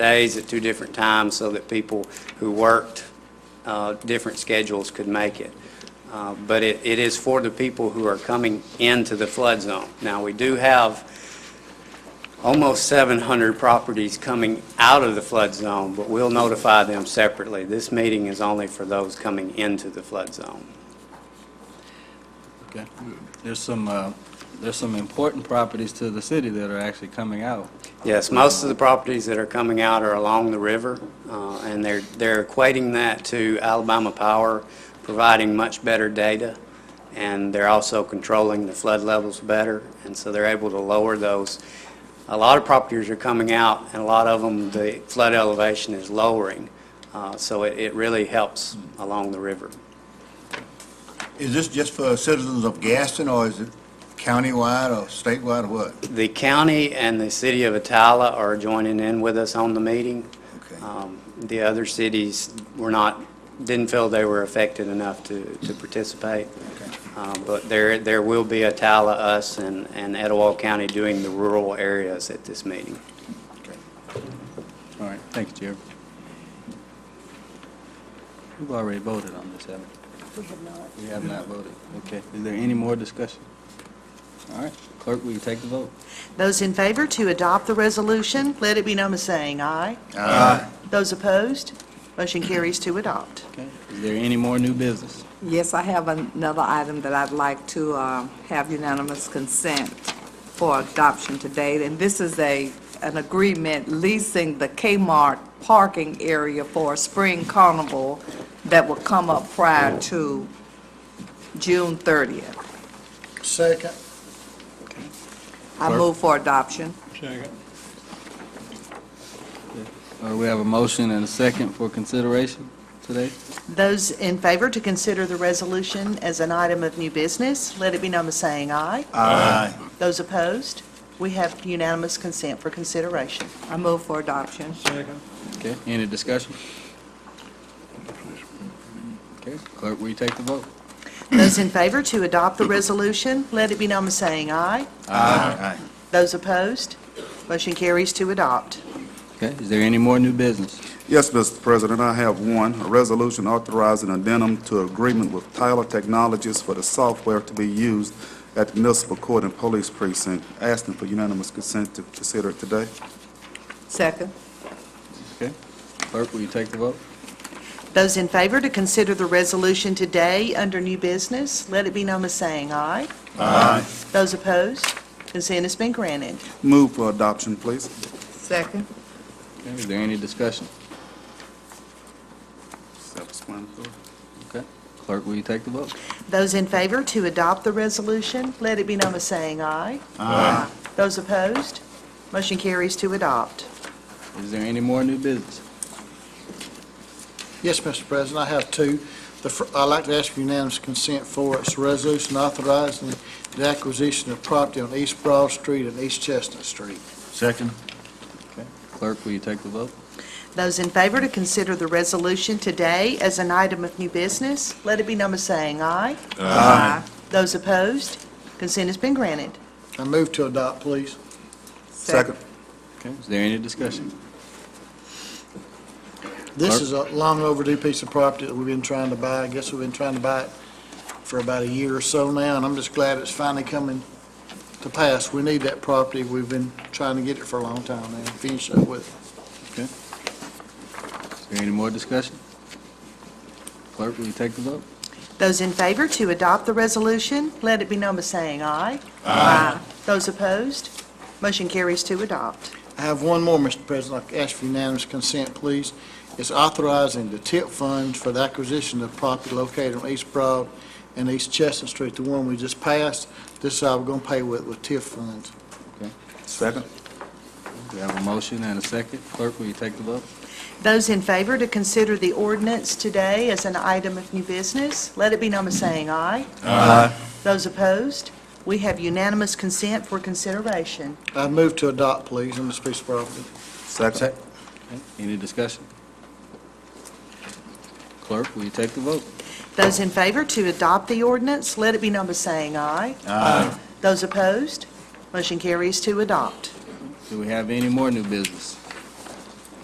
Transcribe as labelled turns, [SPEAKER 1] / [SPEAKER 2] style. [SPEAKER 1] days at two different times so that people who worked uh, different schedules could make it. Uh, But it it is for the people who are coming into the flood zone. Now, we do have almost 700 properties coming out of the flood zone, but we'll notify them separately. This meeting is only for those coming into the flood zone.
[SPEAKER 2] Okay. There's some, uh, there's some important properties to the city that are actually coming out.
[SPEAKER 1] Yes, most of the properties that are coming out are along the river, uh, and they're they're equating that to Alabama Power providing much better data, and they're also controlling the flood levels better, and so they're able to lower those. A lot of properties are coming out, and a lot of them, the flood elevation is lowering, uh, so it it really helps along the river.
[SPEAKER 3] Is this just for citizens of Gaston, or is it countywide or statewide, or what?
[SPEAKER 1] The county and the city of Atala are joining in with us on the meeting.
[SPEAKER 3] Okay.
[SPEAKER 1] Um, The other cities were not, didn't feel they were affected enough to, to participate. Um, But there, there will be Atala, us, and, and Etowah County doing the rural areas at this meeting.
[SPEAKER 2] All right, thank you, Jerry. We've already voted on this, haven't we? We have not voted. Okay. Is there any more discussion? All right, clerk, will you take the vote?
[SPEAKER 4] Those in favor to adopt the resolution, let it be known by saying aye.
[SPEAKER 3] Aye.
[SPEAKER 4] Those opposed, motion carries to adopt.
[SPEAKER 2] Okay. Is there any more new business?
[SPEAKER 5] Yes, I have another item that I'd like to uh, have unanimous consent for adoption today, and this is a, an agreement leasing the Kmart parking area for a spring carnival that will come up prior to June 30th.
[SPEAKER 3] Second.
[SPEAKER 5] I
[SPEAKER 2] Clerk?
[SPEAKER 5] move for adoption.
[SPEAKER 2] Uh, we have a motion and a second for consideration today.
[SPEAKER 4] Those in favor to consider the resolution as an item of new business, let it be known by saying aye.
[SPEAKER 3] Aye.
[SPEAKER 4] Those opposed, we have unanimous consent for consideration.
[SPEAKER 5] I move for adoption.
[SPEAKER 2] Okay. Any discussion? Okay, clerk, will you take the vote?
[SPEAKER 4] Those in favor to adopt the resolution, let it be known by saying aye.
[SPEAKER 3] Aye.
[SPEAKER 4] Those opposed, motion carries to adopt.
[SPEAKER 2] Okay. Is there any more new business?
[SPEAKER 6] Yes, Mr. President, I have one, a resolution authorizing addendum to agreement with Tyler Technologies for the software to be used at the municipal court and police precinct, asking for unanimous consent to consider it today.
[SPEAKER 5] Second.
[SPEAKER 2] Okay. Clerk, will you take the vote?
[SPEAKER 4] Those in favor to consider the resolution today under new business, let it be known by saying aye.
[SPEAKER 3] Aye.
[SPEAKER 4] Those opposed, consent has been granted.
[SPEAKER 6] Move for adoption, please.
[SPEAKER 5] Second.
[SPEAKER 2] Okay, Is there any discussion?
[SPEAKER 6] Self-explanatory.
[SPEAKER 2] Okay. Clerk, will you take the vote?
[SPEAKER 4] Those in favor to adopt the resolution, let it be known by saying aye. Aye. Those opposed, motion carries to adopt.
[SPEAKER 2] Is there any more new business?
[SPEAKER 7] Yes, Mr. President, I have two. The fir- I'd like to ask for unanimous consent for its resolution authorizing the acquisition of property on East Broad Street and East Chestnut Street.
[SPEAKER 3] Second.
[SPEAKER 2] Clerk, will you take the vote?
[SPEAKER 4] Those in favor to consider the resolution today as an item of new business, let it be known by saying aye.
[SPEAKER 5] Aye.
[SPEAKER 4] Those opposed, consent has been granted.
[SPEAKER 7] I move to adopt, please.
[SPEAKER 6] Second.
[SPEAKER 2] Okay. Is there any discussion?
[SPEAKER 7] This
[SPEAKER 2] Clerk?
[SPEAKER 7] is a long overdue piece of property that we've been trying to buy. I guess we've been trying to buy it for about a year or so now, and I'm just glad it's finally coming to pass. We need that property. We've been trying to get it for a long time now, finish up with it.
[SPEAKER 2] Is there any more discussion? Clerk, will you take the vote?
[SPEAKER 4] Those in favor to adopt the resolution, let it be known by saying aye. Aye. Those opposed, motion carries to adopt.
[SPEAKER 7] I have one more, Mr. President. I ask for unanimous consent, please. It's authorizing the tip funds for the acquisition of property located on East Broad and East Chestnut Street, the one we just passed. This is how we're going to pay with, with TIF funds.
[SPEAKER 6] Second.
[SPEAKER 2] We have a motion and a second. Clerk, will you take the vote?
[SPEAKER 4] Those in favor to consider the ordinance today as an item of new business, let it be known by saying aye. Aye. Those opposed, we have unanimous consent for consideration.
[SPEAKER 7] I move to adopt, please, on this piece of property.
[SPEAKER 6] Second.
[SPEAKER 2] Okay. Any discussion? Clerk, will you take the vote?
[SPEAKER 4] Those in favor to adopt the ordinance, let it be known by saying aye. Aye. Those opposed, motion carries to adopt.
[SPEAKER 2] Do we have any more new business?